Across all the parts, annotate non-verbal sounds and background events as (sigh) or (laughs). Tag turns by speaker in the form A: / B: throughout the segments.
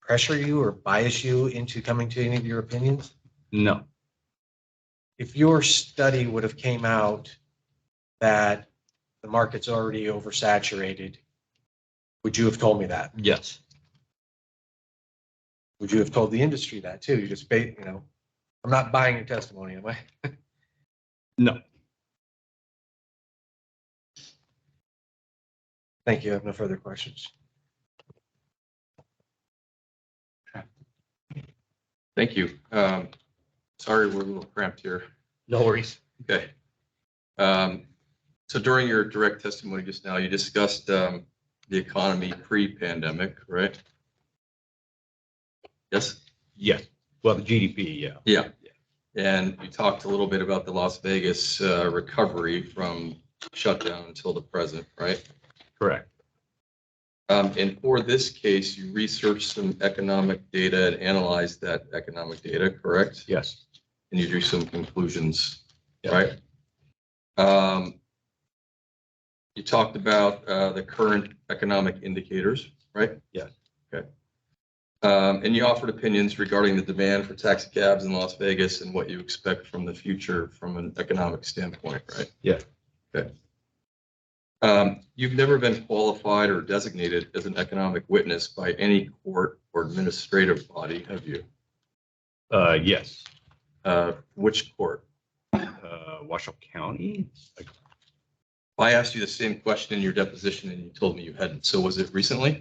A: pressure you or bias you into coming to any of your opinions?
B: No,
A: If your study would have came out that the market's already oversaturated, would you have told me that?
B: yes,
A: Would you have told the industry that too? You just, ba- you know, I'm not buying your testimony, am I? (laughs)
B: no,
A: Thank you. I have no further questions.
C: Thank you. Um, Sorry, we're a little cramped here.
B: no worries.
C: Okay. Um, So during your direct testimony just now, you discussed um, the economy pre-pandemic, right? Yes,
B: Yes, well, the GDP, yeah,
C: yeah. And you talked a little bit about the Las Vegas uh, recovery from shutdown until the present, right?
B: correct,
C: Um, And for this case, you researched some economic data and analyzed that economic data, correct?
B: yes.
C: and you drew some conclusions,
B: Yeah.
C: right? Um, You talked about uh, the current economic indicators, right?
B: Yes.
C: Okay. Um, And you offered opinions regarding the demand for taxi cabs in Las Vegas and what you expect from the future from an economic standpoint, right?
B: Yeah.
C: Okay. Um, You've never been qualified or designated as an economic witness by any court or administrative body, have you?
B: Uh, yes,
C: Uh, Which court?
B: uh, Washoe County, like,
C: I asked you the same question in your deposition and you told me you hadn't. So was it recently?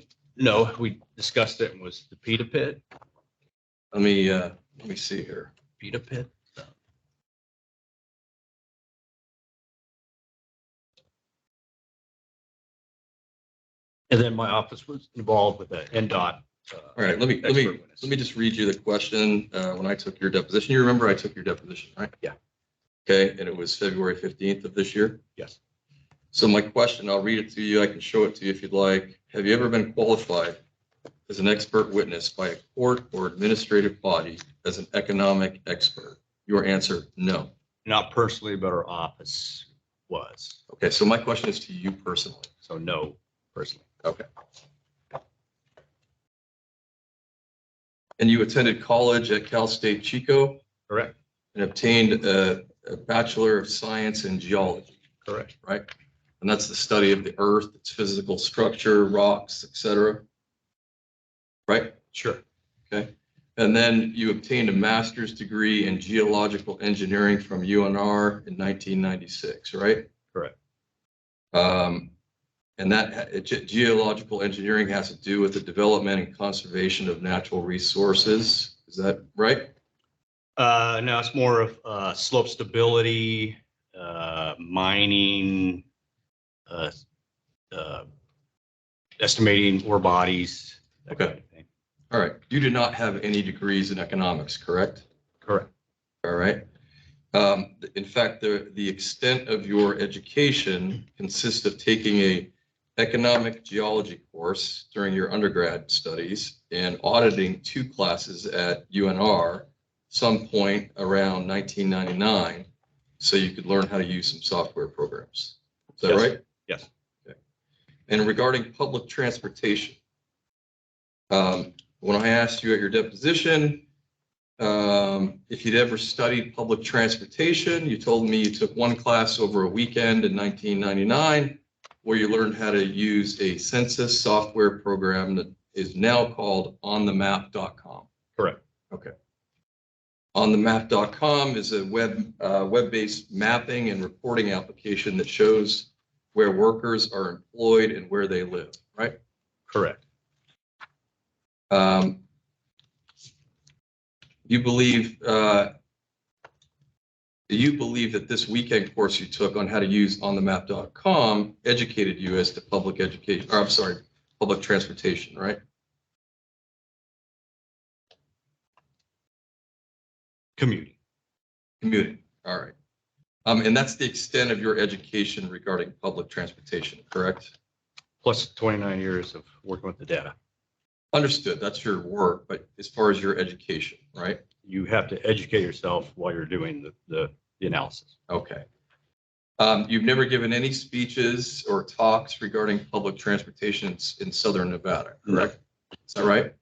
B: no, we discussed it, and was the Pita Pit,
C: Let me, uh, let me see here.
B: Pita Pit? And then my office was involved with the NDOT. uh,
C: All right, let me, let me,
B: expert witness.
C: let me just read you the question. Uh, when I took your deposition, you remember I took your deposition, right?
B: Yeah.
C: Okay, and it was February fifteenth of this year.
B: Yes,
C: So my question, I'll read it to you. I can show it to you if you'd like. Have you ever been qualified as an expert witness by a court or administrative body as an economic expert? Your answer, no.
B: not personally, but our office was,
C: Okay, so my question is to you personally.
B: so no, personally.
C: And you attended college at Cal State Chico
B: Correct,
C: and obtained a, a Bachelor of Science in Geology,
B: correct,
C: right? And that's the study of the earth, its physical structure, rocks, et cetera. Right?
B: sure,
C: And then you obtained a master's degree in geological engineering from UNR in 1996, right?
B: Correct.
C: Um, And that uh, ge- geological engineering has to do with the development and conservation of natural resources. Is that right?
B: Uh, no, it's more of, uh, slope stability, uh, mining, uh, uh, estimating ore bodies. that kind of thing.
C: All right, you did not have any degrees in economics, correct?
B: Correct,
C: All right. Um, th- In fact, the, the extent of your education consists of taking a economic geology course during your undergrad studies and auditing two classes at UNR some point around 1999, so you could learn how to use some software programs. Is that
B: Yes.
C: right?
B: Yes.
C: Okay. And regarding public transportation, um, when I asked you at your deposition, um, if you'd ever studied public transportation, you told me you took one class over a weekend in 1999 where you learned how to use a census software program that is now called onthemap.com.
B: Correct.
C: Okay. Onthemap.com is a web, uh, web-based mapping and reporting application that shows where workers are employed and where they live, right?
B: correct,
C: Um, You believe, uh, you believe that this weekend course you took on how to use onthemap.com educated you as to public education, or I'm sorry, public transportation, right?
B: commuting,
C: Commuting, all right. Um, And that's the extent of your education regarding public transportation, correct?
B: plus twenty-nine years of working with the data.
C: Understood, that's your work, but as far as your education, right?
B: You have to educate yourself while you're doing the, the, the analysis.
C: Okay. Um, you've never given any speeches or talks regarding public transportation in- in southern Nevada, correct? Is that right?